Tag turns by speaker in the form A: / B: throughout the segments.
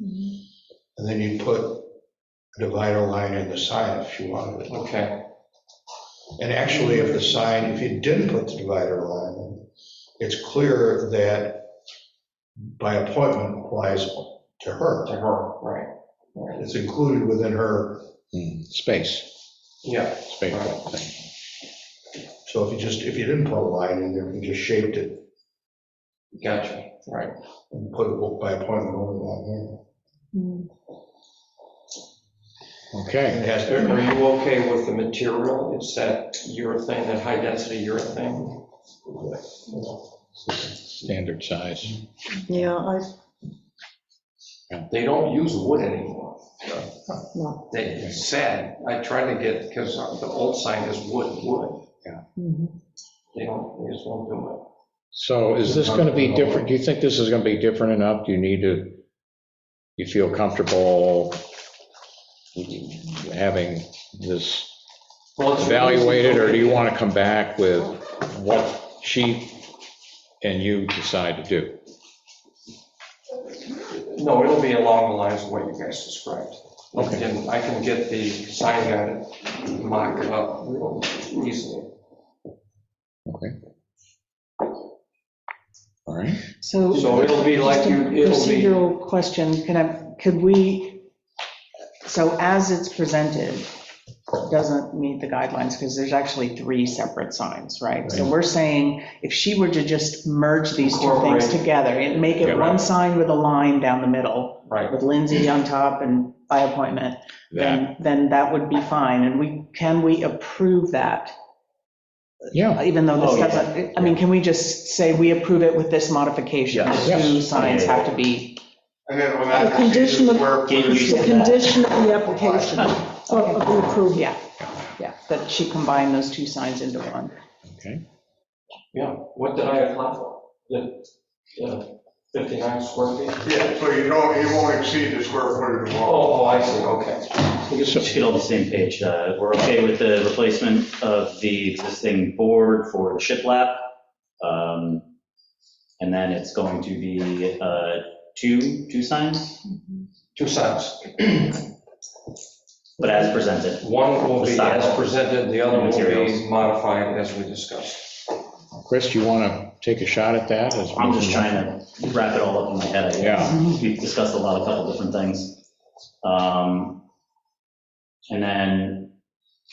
A: Mm-hmm.
B: And then you put a divider line in the sign if you wanted it.
C: Okay,
B: And actually, if the sign, if you didn't put the divider line, it's clear that by appointment applies to her.
C: to her, right,
B: It's included within her, Mm,
D: Hmm, Space,
C: yeah,
D: space type thing.
B: so if you just, if you didn't put a line in there, you just shaped it
C: gotcha, right.
B: and put a book by appointment over that. yeah.
D: Okay,
B: It has
C: Are
B: to,
C: are you okay with the material? It's that urethane, that high-density urethane?
D: standard size.
E: Yeah, I,
C: They don't use wood anymore.
E: No.
C: They, it's sad. I tried to get, because the old sign is wood, wood.
E: mhm.
C: They don't, they just won't do it.
D: So is this going to be different? Do you think this is going to be different enough? Do you need to, you feel comfortable having this
C: Well, it's-
D: evaluated, or do you want to come back with what she and you decide to do?
C: No, it'll be along the lines of what you guys described.
D: Okay.
C: And I can get the sign guy to mock it up real easily.
D: Okay. All right,
E: So.
C: So it'll be like you-
E: Just a
C: it'll be-
E: Procedural question, can I, could we, so as it's presented, doesn't meet the guidelines, because there's actually three separate signs, right? So we're saying, if she were to just merge these two things
C: Incorporate.
E: together and make it
D: Yeah.
E: one sign with a line down the middle,
C: Right,
E: with Lindsay on top and by appointment,
D: that,
E: then, then that would be fine, and we, can we approve that?
D: yeah.
E: even though
C: Oh,
E: this
C: yeah.
E: doesn't, I mean, can we just say we approve it with this modification?
C: Yeah.
E: The two signs have to be,
F: And then on that.
A: The condition of-
F: where- where she-
A: The condition of the application of of the approval.
E: yeah, yeah, that she combined those two signs into one.
D: Okay.
C: yeah. What did I apply for? The the 59 square feet?
F: Yeah, so you don't, it won't exceed the square footage of the wall.
C: Oh, oh, I see, okay.
G: Just to get on the same page, uh, we're okay with the replacement of the existing board for the shiplap. Um, And then it's going to be uh, two, two signs,
C: Two signs.
G: but as presented.
C: One will be
G: Style.
C: as presented, the other will
G: Materials.
C: be modified as we discussed.
D: Chris, do you want to take a shot at that? as we-
G: I'm just trying to wrap it all up in my head. I guess. We've discussed a lot, a couple different things. Um, And then,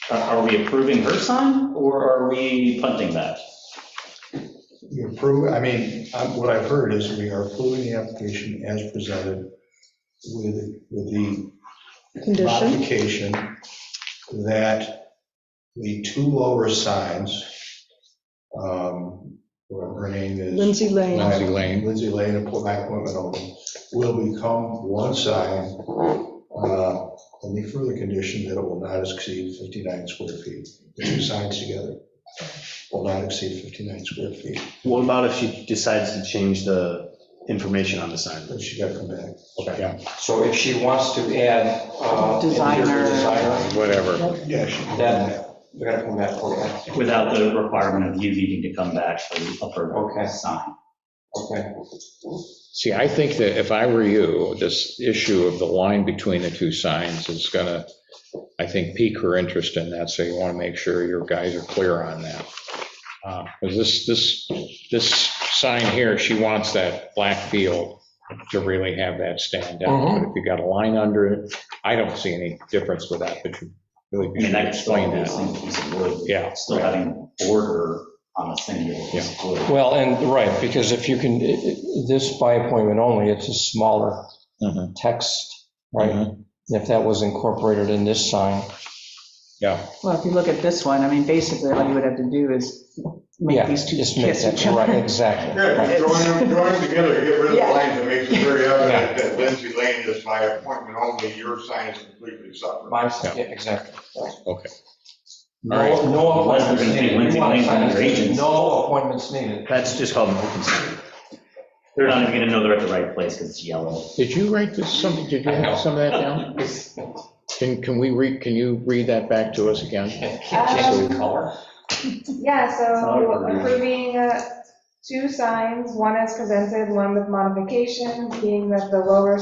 G: are are we approving her sign, or are we punting that?
B: you approve, I mean, um, what I've heard is we are approving the application as presented with, with the
A: Condition,
B: modification that the two lower signs, um, whatever her name is.
A: Lindsay Lane,
D: Lindsay Lane.
B: Lindsay Lane, and put my appointment open, will become one sign, uh, and the further condition that it will not exceed 59 square feet. The two signs together will not exceed 59 square feet,
H: What about if she decides to change the information on the sign?
B: but she got to come back.
D: Yeah,
C: So if she wants to add uh, interior
E: Designer.
C: designer,
D: Whatever.
B: Yeah, she can come
C: That-
B: back.
C: we gotta come back for that.
G: Without the requirement of you needing to come back for the
C: Okay.
G: upper sign.
C: Okay,
D: See, I think that if I were you, this issue of the line between the two signs is going to, I think, pique her interest in that, so you want to make sure your guys are clear on that. Because this, this, this sign here, she wants that black field to really have that stand out.
G: Mm-hmm.
C: Mhm.
D: But if you got a line under it, I don't see any difference with that, but you really
G: I mean,
D: should
G: that could still
D: explain
G: be a
D: that.
G: single piece of wood.
D: Yeah.
G: Still having border on a single piece of wood.
C: well, and, right, because if you can, this by appointment only, it's a smaller
D: Mhm.
C: text,
D: Mhm.
C: If that was incorporated in this sign.
D: Yeah,
E: Well, if you look at this one, I mean, basically, all you would have to do is make these two kiss each other.
C: exactly.
F: Yeah, just join them, join them together, to get rid of the
E: Yeah.
F: lines that makes it very evident that Lindsay Lane is by appointment only, your sign is completely separate.
C: exactly.
D: okay.
C: No,
D: All
C: no
D: right.
G: Unless we're
C: appointments
G: gonna pay
C: needed. We
G: Lindsay
C: want
G: Lane
C: signs.
G: and her agents.
C: No appointments needed.
G: That's just called an open sign. They're not even gonna know they're at the right place because it's yellow.
D: Did you write this, some, did you
C: I know.
D: have some of that down? Can, can we read, can you read that back to us again?
C: Can't change the color.
I: Yeah, so
G: Sorry.
I: approving uh, two signs, one as presented, one with modifications, being that the lower